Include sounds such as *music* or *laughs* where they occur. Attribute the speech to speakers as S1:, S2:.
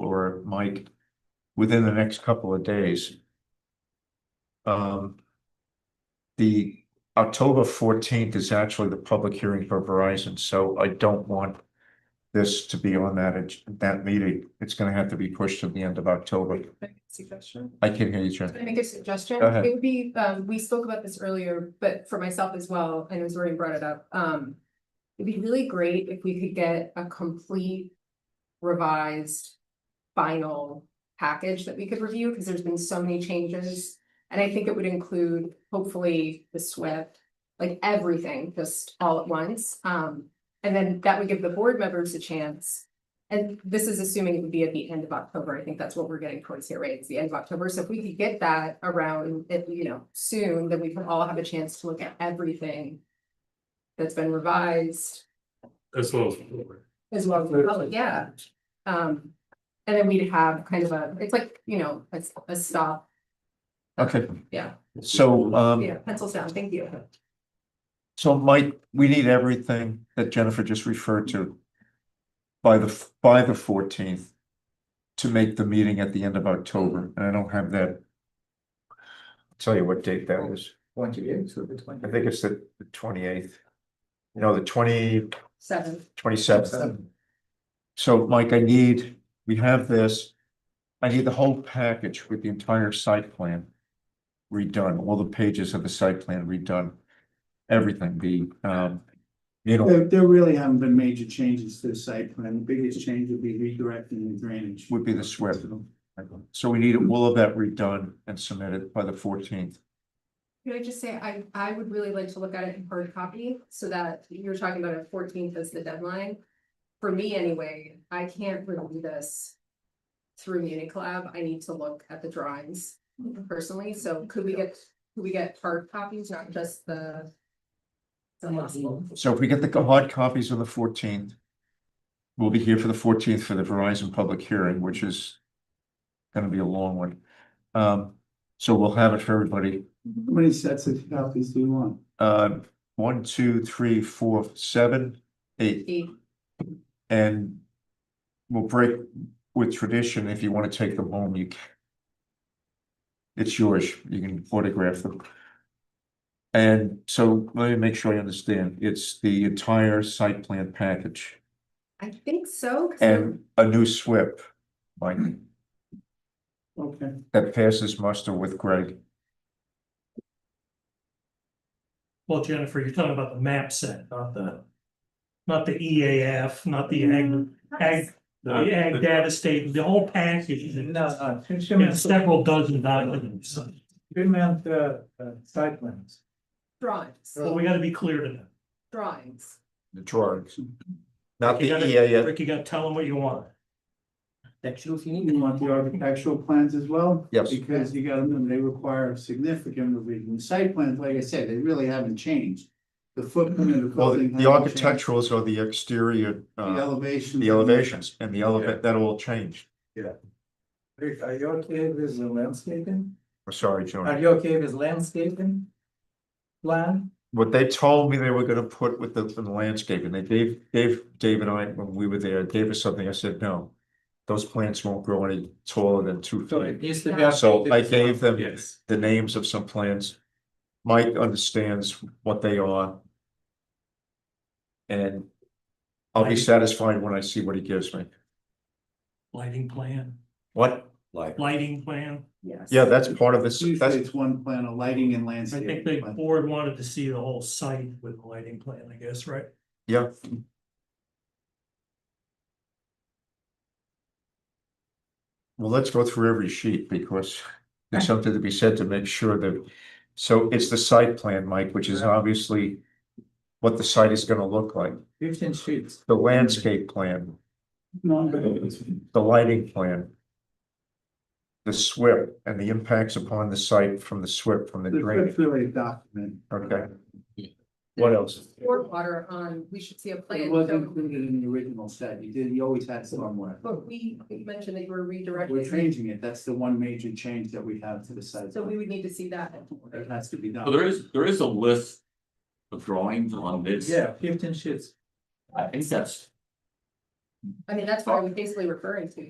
S1: or Mike within the next couple of days. Um. The October fourteenth is actually the public hearing for Verizon, so I don't want this to be on that, ag- that meeting. It's gonna have to be pushed to the end of October.
S2: Make a Suggestion?
S1: I can hear you, Jen.
S2: Can I make a suggestion?
S1: Go ahead.
S2: It would be, um, we spoke about this earlier, but for myself as well, and it was already brought it up, um. It'd be really great if we could get a complete revised final package that we could review, because there's been so many changes. And I think it would include hopefully the SWIFT, like everything, just all at once. Um, and then that would give the board members a chance and this is assuming it would be at the end of October. I think that's what we're getting towards here, right? It's the end of October. So if we could get that around, if, you know, soon, then we can all have a chance to look at everything that's been revised
S3: As well as.
S2: as well as the public, yeah. Um, and then we'd have kind of a, it's like, you know, a, a stop,
S1: Okay,
S2: yeah,
S1: so, um,
S2: yeah, pencils down, thank you.
S1: so Mike, we need everything that Jennifer just referred to by the, f- by the fourteenth to make the meeting at the end of October, and I don't have that. Tell you what date that is.
S4: Twenty eight, so the twenty.
S1: I think it's the twenty-eighth. No, the twenty,
S2: Seven,
S1: twenty-seventh. So Mike, I need, we have this. I need the whole package with the entire site plan redone, all the pages of the site plan redone. Everything, the, um, you know,
S5: There, there really haven't been major changes to the site plan. The biggest change would be redirecting the drainage.
S1: would be the SWIP. So we need all of that redone and submitted by the fourteenth.
S2: Could I just say, I, I would really like to look at it in hard copy, so that you're talking about a fourteenth as the deadline. For me anyway, I can't review this through Unicolab, I need to look at the drawings personally, so could we get, could we get hard copies, not just the. the possible?
S1: So if we get the hard copies on the fourteenth, we'll be here for the fourteenth for the Verizon public hearing, which is gonna be a long one. Um, so we'll have it for everybody.
S5: How many sets of copies do you want?
S1: Uh, one, two, three, four, seven, eight,
S2: The-
S1: and we'll break with tradition. If you want to take them home, you can. It's yours. You can photograph them. And so let me make sure I understand. It's the entire site plan package
S2: I think so, 'cause
S1: and a new SWIP, Mike,
S5: Okay,
S1: that passes muster with Greg.
S3: Well, Jennifer, you're talking about the map set, not the, not the EAF, not the
S5: Mm.
S3: ag, ag, the ag data state, the whole package.
S4: No, no, two, two
S3: Yeah,
S4: minutes,
S3: several dozen documents.
S4: two minute, uh, uh, site plans.
S2: drawings,
S3: Well, we gotta be clear to them.
S2: drawings,
S1: The drawings. Not the E
S3: You gotta-
S1: EAF.
S3: Rick, you gotta tell them what you want.
S5: you want the architectural plans as well?
S1: Yes.
S5: Because you gotta remember, they require significant revision. The Site plans, like I said, they really haven't changed. The footprint of the
S1: Well, the
S5: building.
S1: the
S5: hasn't changed.
S1: architecturals are the exterior,
S5: The
S1: uh,
S5: elevation.
S1: the elevations and the
S4: Yeah.
S1: elevate, that all changed.
S4: Rick, are you okay with the landscaping?
S1: I'm sorry, Joan.
S4: Are you okay with landscaping? Plan?
S1: What they told me they were gonna put with the the landscape and they gave, Dave, Dave and I, when we were there, gave us something. I said, no. Those plants won't grow any taller than two
S4: So
S1: feet.
S4: it needs to be.
S2: Yeah.
S1: So I
S4: updated.
S1: gave them-
S4: Yes.
S1: The names of some plants. Mike understands what they are. And I'll be
S3: Mike-
S1: satisfied when I see what he gives me.
S3: Lighting plan,
S1: What? Like.
S3: lighting plan.
S2: yes.
S1: Yeah, that's part of this,
S5: Usually
S1: that's,
S5: it's one plan, a lighting and
S3: I
S5: landscape.
S3: think the
S5: plan.
S3: board wanted to see the whole site with the lighting plan, I guess, right?
S1: yeah. Well, let's go through every sheet *laughs* because there's something to be said to make sure that, so it's the site plan, Mike, which is obviously what the site is gonna look like,
S4: Fifteen sheets.
S1: the landscape plan,
S5: No, but-
S1: the lighting plan, the SWIP and the impacts upon the site from the SWIP, from the
S5: The
S1: drainage,
S5: foot's really a document.
S1: okay? What else?
S2: Stormwater on, we should see a plan.
S5: It was
S2: so-
S5: included in the original set. You did, you always had somewhere.
S2: But we, we mentioned that you were
S5: We're
S2: redirecting.
S5: changing it. That's the one major change that we have to the site.
S2: So we would need to see that.
S5: That has to be
S6: So
S5: done.
S6: there is, there is a list of drawings on this.
S4: Yeah, fifteen sheets.
S6: I think that's
S2: I mean, that's what I'm basically referring to.